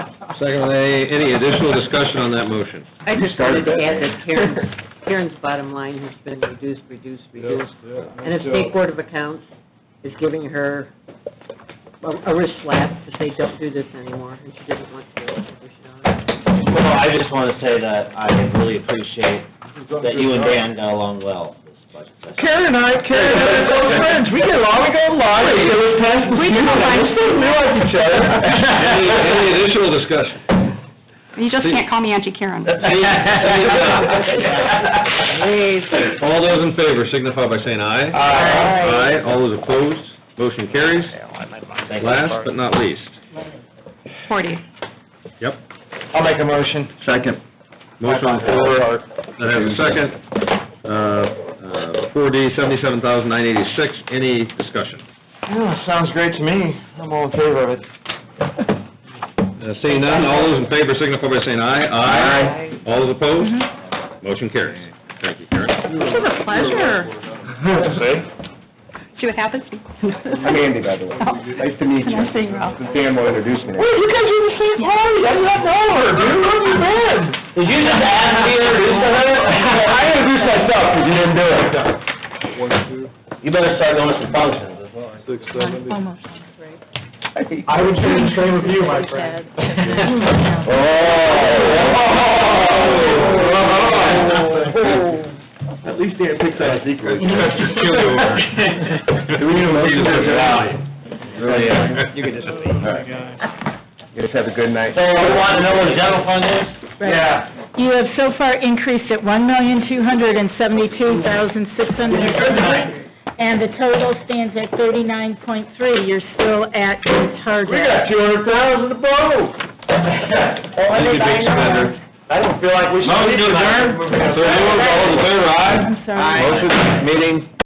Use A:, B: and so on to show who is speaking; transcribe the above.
A: Second, any, any additional discussion on that motion?
B: I just wanted to add that Karen's, Karen's bottom line has been reduced, reduced, reduced. And if State Board of Accounts is giving her a a wrist slap to say, don't do this anymore, and she doesn't want to, we should honor it.
C: Well, I just want to say that I really appreciate that you and Dan got along well this budget session.
D: Karen and I, Karen and I are close friends, we get along, we go along, we get along, we get along, we still realize each other.
A: Any, any additional discussion?
E: You just can't call me Auntie Karen.
A: Any- any discussion? All those in favor signify by saying aye. Aye, all those opposed, motion carries.
C: Thank you.
A: Last but not least,
E: Forty.
A: yep.
D: I'll make a motion. Second.
A: Motion on the floor that has a second. Uh, Four D, seventy-seven thousand nine eighty-six, any discussion?
D: Yeah, sounds great to me, I'm all in favor of it.
A: Uh, Seeing none, all those in favor signify by saying aye. Aye. All those opposed,
D: Mm-hmm.
A: motion carries. Thank you, Karen.
E: This was a pleasure.
D: See?
E: See what happens?
F: I'm Andy, by the way. Nice to meet you.
E: Nice to meet you, Ralph.
F: Dan will introduce me.
D: Wait, you guys are the same party, I'm not over, dude, where have you been?
C: Did you just ask me to introduce the
D: I introduced myself, because you didn't do it.
C: You better start going to some functions.
E: Almost.
D: I would do the same with you, my friend.
E: friend.
F: At least Dan picks out his equals.
A: Do
F: we need a motion?
A: Really, uh,
F: You can just leave. You guys have a good night.
C: So we want to know what the general fund is?
D: Yeah.
G: You have so far increased it one million, two hundred and seventy-two thousand, six hundred and twenty, and the total stands at thirty-nine point three. You're still at your
D: We got
G: target.
D: two hundred thousand to blow.
A: you big spender.
D: I don't feel like we should.
A: Motion to adjourn? So moved. all those in favor, aye?
G: I'm sorry.
A: Motion, meeting